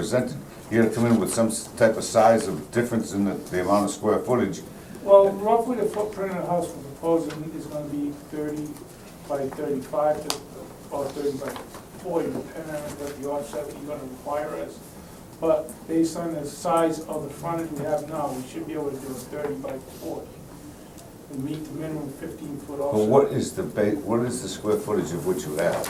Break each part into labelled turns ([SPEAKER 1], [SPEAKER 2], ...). [SPEAKER 1] presented, you gotta come in with some s- type of size of difference in the, the amount of square footage.
[SPEAKER 2] Well, roughly the footprint of the house we're proposing is gonna be thirty by thirty-five to, or thirty by forty, depending on what the offset that you're gonna require us. But based on the size of the frontage we have now, we should be able to do a thirty by forty. And meet the minimum fifteen-foot
[SPEAKER 1] But
[SPEAKER 2] offset.
[SPEAKER 1] what is the ba, what is the square footage of what you have?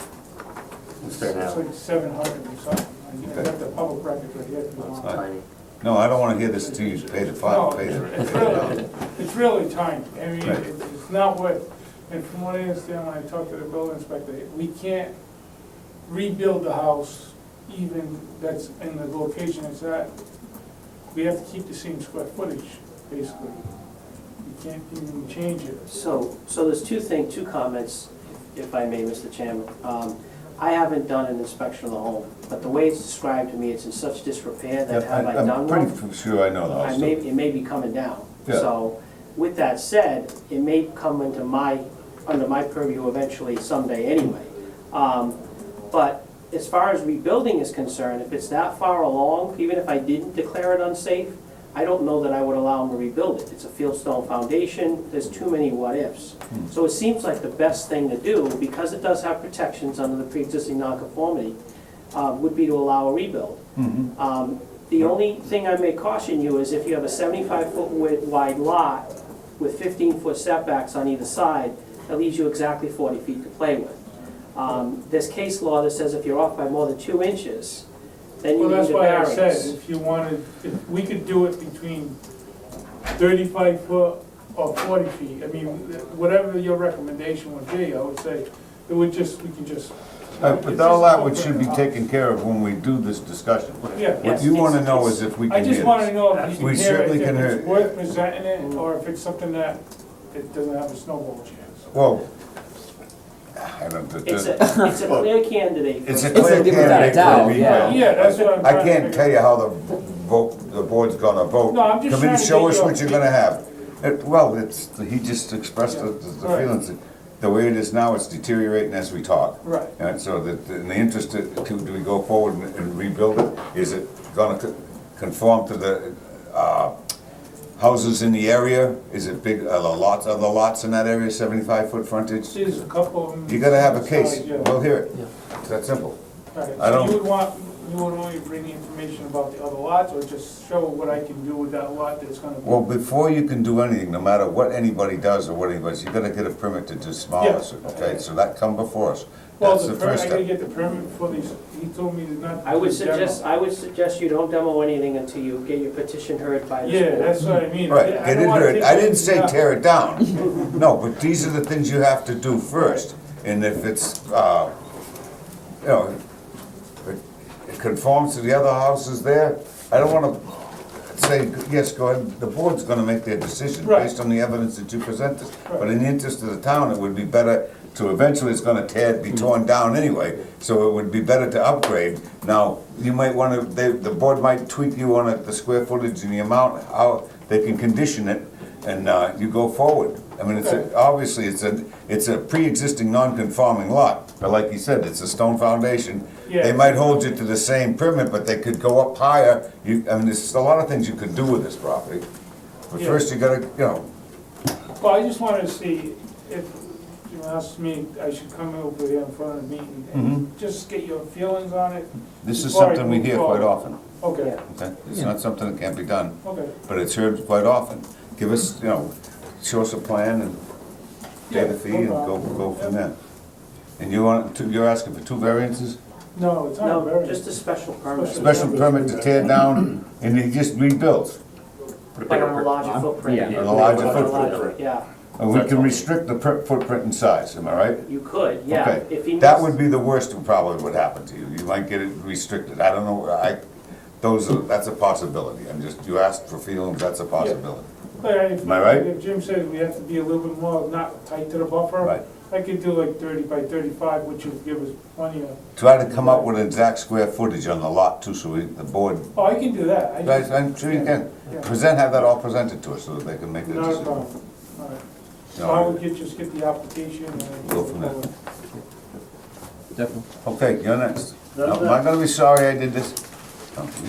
[SPEAKER 2] It's like seven hundred or something. I
[SPEAKER 1] Okay.
[SPEAKER 2] got the public record right here if you want.
[SPEAKER 3] Tiny.
[SPEAKER 1] No, I don't wanna hear this till you pay the
[SPEAKER 2] No,
[SPEAKER 1] fi, pay
[SPEAKER 2] it's
[SPEAKER 1] the.
[SPEAKER 2] it's really, it's really tiny, I mean,
[SPEAKER 1] Right.
[SPEAKER 2] it- it's not what, and from what I understand, when I talked to the building inspector, we can't rebuild the house even that's in the location it's at. We have to keep the same square footage, basically. We can't even change it.
[SPEAKER 3] So, so there's two things, two comments, if I may, Mr. Chairman. Um, I haven't done an inspection of the home, but the way it's described to me, it's in such disrepair that have I
[SPEAKER 1] I'm
[SPEAKER 3] done one?
[SPEAKER 1] pretty sure I know the
[SPEAKER 3] I
[SPEAKER 1] house.
[SPEAKER 3] may, it may be coming down.
[SPEAKER 1] Yeah.
[SPEAKER 3] So with that said, it may come into my, under my purview eventually someday anyway. Um, But as far as rebuilding is concerned, if it's that far along, even if I didn't declare it unsafe, I don't know that I would allow them to rebuild it. It's a fieldstone foundation, there's too many what-ifs. So it seems like the best thing to do, because it does have protections under the pre-existing nonconformity, uh, would be to allow a rebuild.
[SPEAKER 1] Mm-hmm.
[SPEAKER 3] Um, The only thing I may caution you is if you have a 75-foot wi- wide lot with 15-foot setbacks on either side, that leaves you exactly 40 feet to play with. Um, There's case law that says if you're off by more than two inches, then you
[SPEAKER 2] Well,
[SPEAKER 3] need
[SPEAKER 2] that's
[SPEAKER 3] a
[SPEAKER 2] why I
[SPEAKER 3] variance.
[SPEAKER 2] said, if you wanted, if we could do it between thirty-five foot or forty feet, I mean, whatever your recommendation would be, I would say, it would just, we can just.
[SPEAKER 1] Uh, But all that would should be taken care of when we do this discussion.
[SPEAKER 2] Yeah,
[SPEAKER 1] What you wanna know is if we
[SPEAKER 2] I
[SPEAKER 1] can
[SPEAKER 2] just
[SPEAKER 1] hear
[SPEAKER 2] wanted to
[SPEAKER 1] this.
[SPEAKER 2] know if you
[SPEAKER 1] We
[SPEAKER 2] can hear
[SPEAKER 1] certainly
[SPEAKER 2] it,
[SPEAKER 1] can
[SPEAKER 2] if
[SPEAKER 1] hear
[SPEAKER 2] it's
[SPEAKER 1] it.
[SPEAKER 2] worth presenting it, or if it's something that, it doesn't have a snowball chance.
[SPEAKER 1] Well, I don't, the-
[SPEAKER 3] It's a,
[SPEAKER 1] the-
[SPEAKER 3] it's a clear candidate. for-
[SPEAKER 1] it's a
[SPEAKER 4] It's a-
[SPEAKER 1] clear
[SPEAKER 4] without
[SPEAKER 1] candidate for
[SPEAKER 4] doubt,
[SPEAKER 1] a
[SPEAKER 4] yeah.
[SPEAKER 1] rebuild.
[SPEAKER 2] Yeah, that's what I'm
[SPEAKER 1] I
[SPEAKER 2] trying to
[SPEAKER 1] can't
[SPEAKER 2] figure
[SPEAKER 1] tell
[SPEAKER 2] out.
[SPEAKER 1] you how the vote, the board's gonna vote.
[SPEAKER 2] No, I'm just
[SPEAKER 1] Come in,
[SPEAKER 2] trying to
[SPEAKER 1] show
[SPEAKER 2] get
[SPEAKER 1] us
[SPEAKER 2] your-
[SPEAKER 1] what you're gonna have. It- Well, it's, he just expressed the the
[SPEAKER 2] Right.
[SPEAKER 1] feelings. The way it is now, it's deteriorating as we talk.
[SPEAKER 2] Right.
[SPEAKER 1] And so that, in the interest, of- to, do we go forward and- and rebuild it? Is it gonna co- conform to the, uh, houses in the area? Is it big, are the lots, are the lots in that area seventy-five foot frontage?
[SPEAKER 2] See, there's a couple of them.
[SPEAKER 1] You gotta have a case.
[SPEAKER 2] Size, yeah.
[SPEAKER 1] We'll hear it. It's that simple.
[SPEAKER 2] All right,
[SPEAKER 1] I
[SPEAKER 2] so
[SPEAKER 1] don't-
[SPEAKER 2] you would want, you would only bring the information about the other lots, or just show what I can do with that lot that's gonna
[SPEAKER 1] Well,
[SPEAKER 2] be?
[SPEAKER 1] before you can do anything, no matter what anybody does or what anybody's, you gotta get a permit to demolish it, okay? So that come before us.
[SPEAKER 2] Well,
[SPEAKER 1] That's
[SPEAKER 2] the
[SPEAKER 1] the
[SPEAKER 2] per,
[SPEAKER 1] first
[SPEAKER 2] I gotta
[SPEAKER 1] step.
[SPEAKER 2] get the permit for these, he told me to not.
[SPEAKER 3] I would
[SPEAKER 2] to demo.
[SPEAKER 3] suggest, I would suggest you don't demo anything until you get your petition heard by the
[SPEAKER 2] Yeah,
[SPEAKER 3] board.
[SPEAKER 2] that's what I mean.
[SPEAKER 1] Right,
[SPEAKER 2] I
[SPEAKER 1] get
[SPEAKER 2] don't
[SPEAKER 1] in
[SPEAKER 2] wanna
[SPEAKER 1] there,
[SPEAKER 2] take
[SPEAKER 1] I
[SPEAKER 2] it-
[SPEAKER 1] didn't say
[SPEAKER 2] yeah.
[SPEAKER 1] tear it down. No, but these are the things you have to do first. And if it's, uh, you know, it it conforms to the other houses there, I don't wanna say, yes, go ahead, the board's gonna make their decision
[SPEAKER 2] Right.
[SPEAKER 1] based on the evidence that you presented. But
[SPEAKER 2] Right.
[SPEAKER 1] in the interest of the town, it would be better to, eventually it's gonna tear,
[SPEAKER 2] Mm-hmm.
[SPEAKER 1] be torn down anyway, so it would be better to upgrade. Now, you might wanna, they, the board might tweak you on it, the square footage and the amount, how they can condition it, and, uh, you go forward. I mean, it's, a- obviously, it's a, it's a pre-existing non-conforming lot, but like you said, it's a stone foundation. They
[SPEAKER 2] Yeah.
[SPEAKER 1] might hold you to the same permit, but they could go up higher, you, I mean, there's a lot of things you could do with this property. But
[SPEAKER 2] Yeah.
[SPEAKER 1] first, you gotta, you know,
[SPEAKER 2] Well, I just wanted to see if you asked me, I should come over here in front of the meeting and just get your feelings on it.
[SPEAKER 1] Mm-hmm. This is
[SPEAKER 2] before I
[SPEAKER 1] something we
[SPEAKER 2] move
[SPEAKER 1] hear quite
[SPEAKER 2] forward.
[SPEAKER 1] often,
[SPEAKER 2] Okay,
[SPEAKER 1] okay? It's not something that can't be done,
[SPEAKER 2] okay.
[SPEAKER 1] but it's heard quite often. Give us, you know, show us a plan and pay the
[SPEAKER 2] Yeah,
[SPEAKER 1] fee
[SPEAKER 2] no
[SPEAKER 1] and go,
[SPEAKER 2] problem.
[SPEAKER 1] go from there. And you want, two- you're asking for two variances?
[SPEAKER 2] No, it's not
[SPEAKER 3] No,
[SPEAKER 2] very.
[SPEAKER 3] just a special permit.
[SPEAKER 2] Special-
[SPEAKER 1] Special permit to tear down and it just rebuilds.
[SPEAKER 3] But on a larger footprint.
[SPEAKER 4] Yeah.
[SPEAKER 1] On a larger
[SPEAKER 3] On a
[SPEAKER 1] footprint.
[SPEAKER 3] larger- Yeah,
[SPEAKER 1] And we can restrict the per- footprint and size, am I right?
[SPEAKER 3] you could, yeah. If he
[SPEAKER 1] Okay, that
[SPEAKER 3] needs-
[SPEAKER 1] would be the worst that probably would happen to you, you might get it restricted, I don't know, I, those are, that's a possibility, I'm just, you asked for feelings, that's a possibility.
[SPEAKER 2] But if-
[SPEAKER 1] Am I right?
[SPEAKER 2] If Jim says we have to be a little bit more, not tight to the buffer.
[SPEAKER 1] Right.
[SPEAKER 2] I could do like thirty by thirty-five, which would give us plenty of,
[SPEAKER 1] Try to come up with an exact square footage on the lot too, so we, the board,
[SPEAKER 2] oh, I can do that. I
[SPEAKER 1] guys,
[SPEAKER 2] just-
[SPEAKER 1] I'm sure you can,
[SPEAKER 2] Yeah.
[SPEAKER 1] present, have that all presented to us, so that they can make their
[SPEAKER 2] Not a
[SPEAKER 1] decision.
[SPEAKER 2] problem, all right. So I would get, just get the application and. then-
[SPEAKER 1] Go from there.
[SPEAKER 4] Definitely.
[SPEAKER 1] Okay, you're next.
[SPEAKER 5] No,
[SPEAKER 1] Now, Am I gonna be sorry I did this? Oh, you